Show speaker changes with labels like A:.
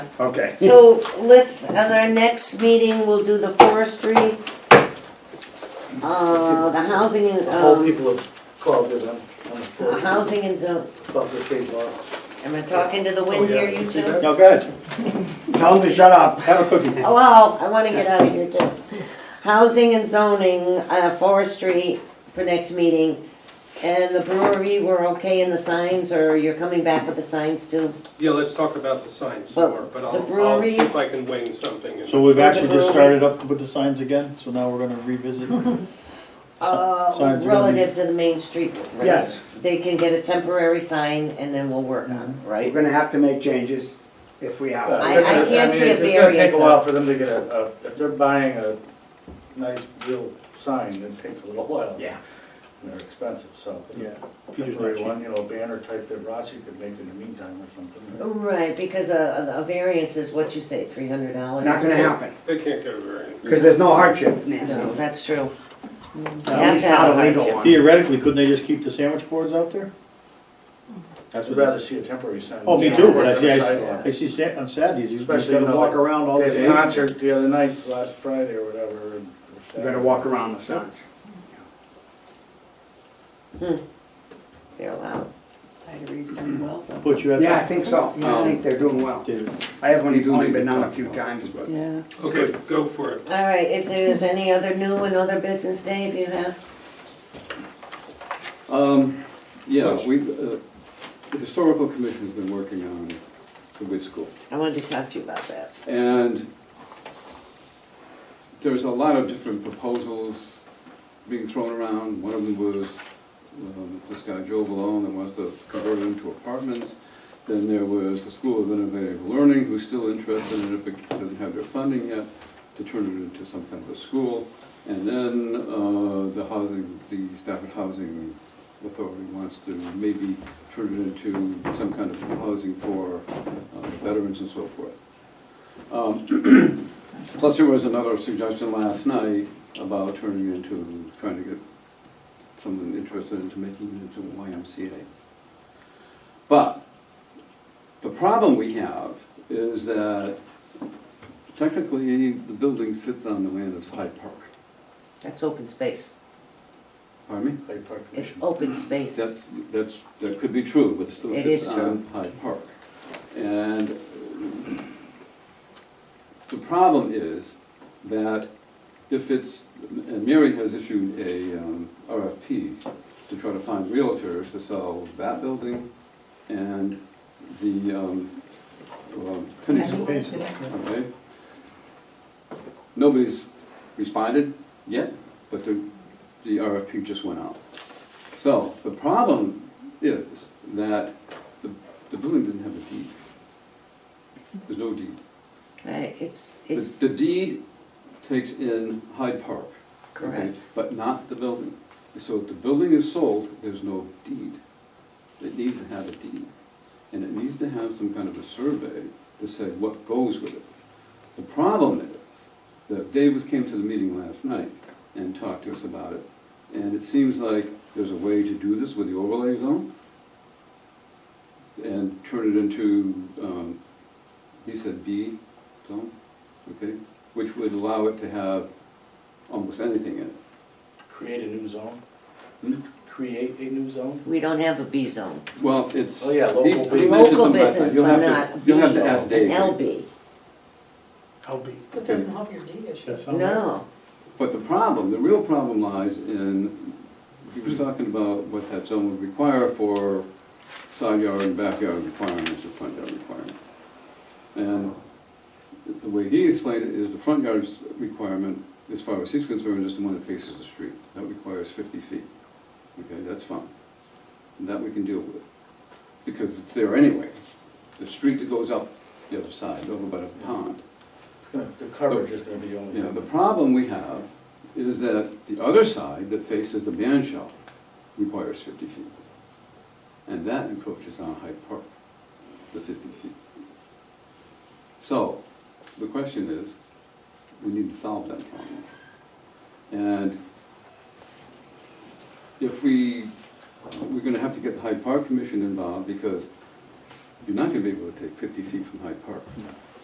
A: Okay.
B: So let's, at our next meeting, we'll do the forestry, uh, the housing and,
C: The whole
B: um,
C: people of Clark is on, on the
B: the
C: floor,
B: housing and zone,
C: above the state law.
B: am I talking to the wind
C: Oh, yeah,
B: here,
C: you
B: you
C: see
B: two?
C: that?
A: No, good. Tell them to shut up. Have a cookie.
B: Hello, Oh, I wanna get out of here too. Housing and zoning, uh, forestry for next meeting. And the brewery, we're okay in the signs, or you're coming back with the signs too?
D: Yeah, let's talk about the signs
B: But
D: more, but
B: the
D: I'll, I'll see
B: breweries-
D: if I can wing something. in.
E: So we've actually just started up with the signs again, so now we're gonna revisit.
B: Uh,
E: signs are gonna be-
B: relative to the main street, right?
A: Yes.
B: They can get a temporary sign and then we'll work on, it,
A: We're
B: right?
A: gonna have to make changes if we have.
B: I- I can't see a
C: It's gonna
B: variance
C: take a
B: on-
C: while for them to get a, a- if they're buying a nice real sign, it takes a little while.
A: Yeah.
C: And they're expensive, so.
E: Yeah.
C: Temporary one, you know, banner type that Rossi could make in the meantime or something.
B: Right, because a, a variance is what you say, three hundred dollars?
A: Not gonna happen,
D: They can't get a variance.
A: because there's no hardship, Nancy.
B: No, that's true. You
A: At
B: have
A: least
B: to have
A: not
B: a
A: a legal
B: hardship.
A: one.
E: Theoretically, couldn't they just keep the sandwich boards out there? That's
C: I'd
E: what,
C: rather see a temporary sign.
E: oh, me
B: Yeah.
E: too, but I
C: It's on
E: see,
C: the
E: I
C: sidewalk.
E: see, I see sa- on Saturdays, you just
C: Especially, you
E: gotta
C: know,
E: walk
C: like,
E: around all
C: They
E: the.
C: had a concert the other night, last Friday or whatever. and-
A: You gotta walk around the signs.
B: They're allowed.
F: Cidery's done well though.
E: But you had.
A: Yeah, I think so. I think they're doing well.
E: Did-
A: I have only, only been on a few times, but
F: Yeah.
D: Okay, go for it.
B: All right, if there's any other new and other business, Dave, you have?
G: Um, yeah, we, uh, the historical commission's been working on the Wiz School.
B: I wanted to talk to you about that.
G: And there's a lot of different proposals being thrown around. One of them was um, this guy Joe Valone that wants to convert it into apartments. Then there was the School of Innovative Learning, who's still interested in it, but doesn't have their funding yet, to turn it into some kind of a school. And then uh, the housing, the Stafford Housing Authority wants to maybe turn it into some kind of housing for uh, veterans and so forth. Um, Plus, there was another suggestion last night about turning into, trying to get someone interested into making it into a YMCA. But the problem we have is that technically, the building sits on the land of Hyde Park.
B: That's open space.
G: Pardon me?
C: Hyde Park
B: It's
C: Commission.
B: open space.
G: That's, that's, that could be true, but it still
B: It
G: sits
B: is true.
G: on Hyde Park. And uh, the problem is that if it's, and Mary has issued a um, RFP to try to find realtors to sell that building and the, um, um, Phoenix Okay. Nobody's responded yet, but the, the RFP just went out. So the problem is that the, the building doesn't have a deed. There's no deed.
B: Right, it's,
G: The-
B: it's
G: The deed takes in Hyde Park. okay,
B: correct.
G: But not the building. So if the building is sold, there's no deed. It needs to have a deed. And it needs to have some kind of a survey to say what goes with it. The problem is that Davis came to the meeting last night and talked to us about it. And it seems like there's a way to do this with the overlay zone and turn it into, um, he said B zone, okay? Which would allow it to have almost anything in it.
C: Create a new zone,
G: Hmm?
C: create a new zone?
B: We don't have a B zone.
G: Well, it's.
C: Oh, yeah,
G: he-
C: local
G: he
C: business.
G: mentioned
B: Local
G: something like that.
B: business,
G: You'll
B: but
G: have to-
B: not
G: You'll have
B: B,
G: to ask
B: An
G: Dave.
B: LB,
F: That doesn't help your deed issue.
B: no.
G: But the problem, the real problem lies in, he was talking about what that zone would require for side yard and backyard requirements or front yard requirements. And the way he explained it is the front yard requirement, as far as he's concerned, is the one that faces the street. That requires fifty feet. Okay, that's fine. And That we can deal with, because it's there anyway. The street that goes up the other side, over by the pond.
C: It's gonna, the coverage is gonna be the only
G: Yeah, the
C: thing.
G: problem we have is that the other side that faces the man shell requires fifty feet. And that encroaches on Hyde Park, the fifty feet. So, the question is, we need to solve that problem. And if we, we're gonna have to get the Hyde Park Commission involved because you're not gonna be able to take fifty feet from Hyde Park.